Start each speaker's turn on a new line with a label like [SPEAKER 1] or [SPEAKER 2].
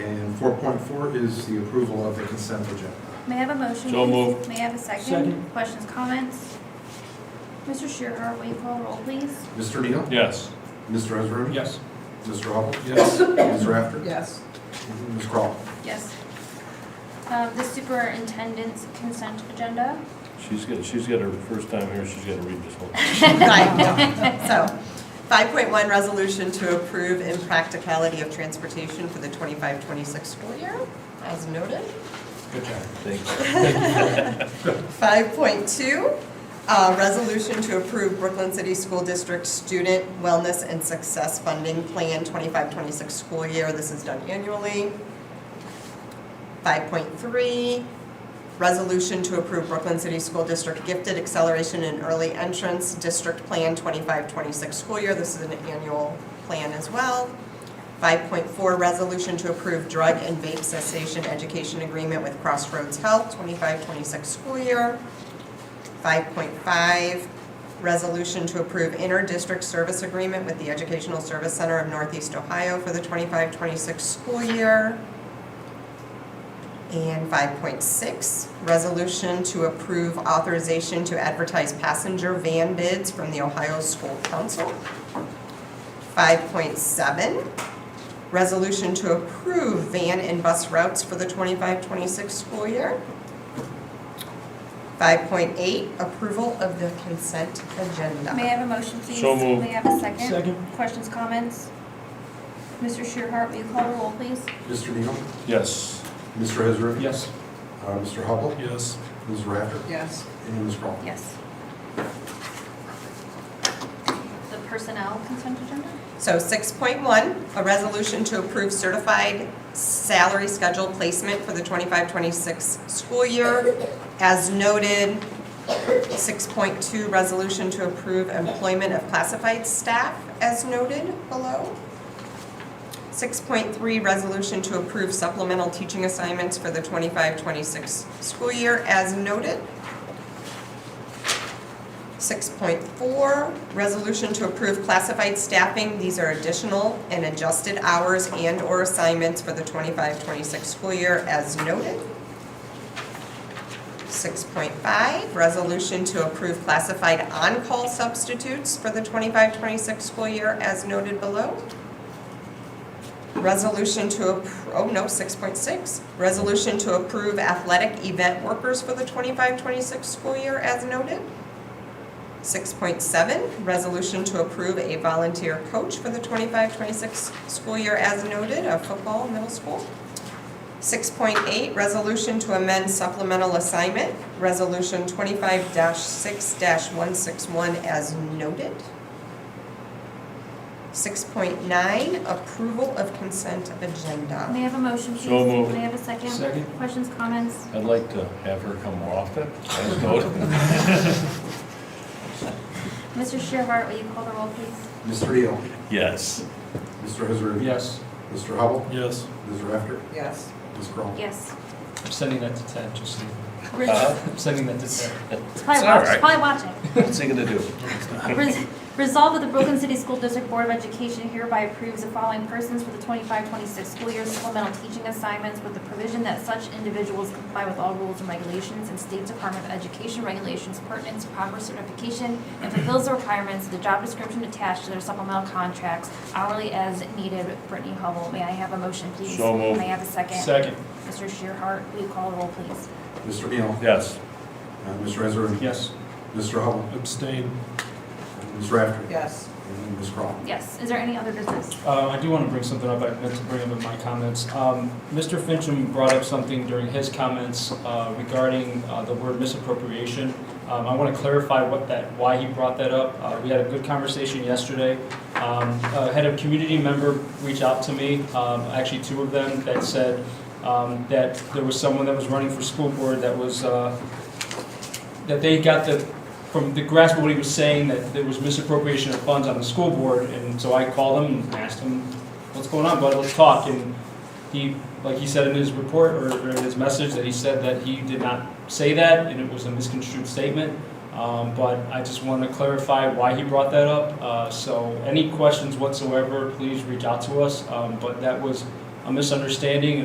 [SPEAKER 1] 4.4 is the approval of the consent agenda.
[SPEAKER 2] May I have a motion?
[SPEAKER 3] So
[SPEAKER 2] please?
[SPEAKER 3] moved.
[SPEAKER 2] May I have a second?
[SPEAKER 4] Second.
[SPEAKER 2] Questions, comments? Mr. Shearhart, will you call roll, please?
[SPEAKER 1] Mr. Neal?
[SPEAKER 3] Yes.
[SPEAKER 1] Mr. Ezra?
[SPEAKER 4] Yes.
[SPEAKER 1] Mr. Hubble? Yes. Ms. Rafter?
[SPEAKER 5] yes,
[SPEAKER 1] Ms. Crawl?
[SPEAKER 2] Yes. Um, The superintendent's consent agenda.
[SPEAKER 3] She's got, she's got her first time here, she's got to read this one.
[SPEAKER 6] Right, no. So, 5.1, resolution to approve impracticality of transportation for the 25-26 school year, as noted.
[SPEAKER 4] Good job.
[SPEAKER 3] Thanks.
[SPEAKER 6] 5.2, uh, resolution to approve Brooklyn City School District Student Wellness and Success Funding Plan 25-26 school year. This is done annually. 5.3, resolution to approve Brooklyn City School District Gifted Acceleration and Early Entrance District Plan 25-26 school year. This is an annual plan as well. 5.4, resolution to approve drug and vape cessation education agreement with Crossroads Health, 25-26 school year. 5.5, resolution to approve inter-district service agreement with the Educational Service Center of Northeast Ohio for the 25-26 school year. And 5.6, resolution to approve authorization to advertise passenger van bids from the Ohio School Council. 5.7, resolution to approve van and bus routes for the 25-26 school year. 5.8, approval of the consent agenda.
[SPEAKER 2] May I have a motion, please?
[SPEAKER 3] So moved.
[SPEAKER 2] May I have a second?
[SPEAKER 4] Second.
[SPEAKER 2] Questions, comments? Mr. Shearhart, will you call roll, please?
[SPEAKER 1] Mr. Neal?
[SPEAKER 3] Yes.
[SPEAKER 1] Mr. Ezra?
[SPEAKER 4] Yes.
[SPEAKER 1] Uh, Mr. Hubble?
[SPEAKER 3] Yes.
[SPEAKER 1] Ms. Rafter?
[SPEAKER 5] yes.
[SPEAKER 1] And Ms. Crawl?
[SPEAKER 2] Yes. The personnel consent agenda?
[SPEAKER 6] So 6.1, a resolution to approve certified salary schedule placement for the 25-26 school year. As noted, 6.2, resolution to approve employment of classified staff as noted below. 6.3, resolution to approve supplemental teaching assignments for the 25-26 school year as noted. 6.4, resolution to approve classified staffing. These are additional and adjusted hours and/or assignments for the 25-26 school year as noted. 6.5, resolution to approve classified on-call substitutes for the 25-26 school year as noted below. Resolution to, appro- oh no, 6.6, resolution to approve athletic event workers for the 25-26 school year as noted. 6.7, resolution to approve a volunteer coach for the 25-26 school year as noted of football middle school. 6.8, resolution to amend supplemental assignment, resolution 25-6-161 as noted. 6.9, approval of consent agenda.
[SPEAKER 2] May I have a motion, please?
[SPEAKER 3] So moved.
[SPEAKER 2] May I have a second?
[SPEAKER 4] Second.
[SPEAKER 2] Questions, comments?
[SPEAKER 3] I'd like to have her come more often. As noted.
[SPEAKER 2] Mr. Shearhart, will you call the roll, please?
[SPEAKER 1] Mr. Neal?
[SPEAKER 3] Yes.
[SPEAKER 1] Mr. Ezra?
[SPEAKER 4] Yes.
[SPEAKER 1] Mr. Hubble?
[SPEAKER 3] Yes.
[SPEAKER 1] Ms. Rafter?
[SPEAKER 5] Yes.
[SPEAKER 1] Ms. Crawl?
[SPEAKER 2] Yes.
[SPEAKER 4] I'm sending that to Ted, just so you know.
[SPEAKER 3] Uh,
[SPEAKER 4] I'm sending that to Ted.
[SPEAKER 2] It's
[SPEAKER 3] It's
[SPEAKER 2] probably
[SPEAKER 3] all
[SPEAKER 2] watch- it's
[SPEAKER 3] right.
[SPEAKER 2] probably watching.
[SPEAKER 3] What's he gonna do?
[SPEAKER 2] Res- Resolved that the Brooklyn City School District Board of Education hereby approves the following persons for the 25-26 school year supplemental teaching assignments with the provision that such individuals comply with all rules and regulations and State Department of Education regulations pertinent to proper certification and fulfills the requirements of the job description attached to their supplemental contracts hourly as needed. Brittany Hubble, may I have a motion, please?
[SPEAKER 3] So moved.
[SPEAKER 2] May I have a second?
[SPEAKER 4] Second.
[SPEAKER 2] Mr. Shearhart, will you call the roll, please?
[SPEAKER 1] Mr. Neal?
[SPEAKER 3] Yes.
[SPEAKER 1] Uh, Mr. Ezra?
[SPEAKER 4] Yes.
[SPEAKER 1] Mr. Hubble?
[SPEAKER 4] Abstain.
[SPEAKER 1] Ms. Rafter?
[SPEAKER 5] Yes.
[SPEAKER 1] And Ms. Crawl?
[SPEAKER 2] Yes, is there any other business?
[SPEAKER 4] Uh, I do want to bring something up, I meant to bring up in my comments. Um, Mr. Fincham brought up something during his comments uh, regarding uh, the word misappropriation. Um, I want to clarify what that, why he brought that up. Uh, We had a good conversation yesterday. Um, uh, Had a community member reach out to me, um, actually two of them, that said um, that there was someone that was running for school board that was, uh, that they got the from the grasp of what he was saying, that there was misappropriation of funds on the school board, and so I called him and asked him, what's going on, bud, let's talk, and he, like he said in his report, or or in his message, that he said that he did not say that, and it was a misconstrued statement, um, but I just want to clarify why he brought that up, uh, so any questions whatsoever, please reach out to us, um, but that was a misunderstanding,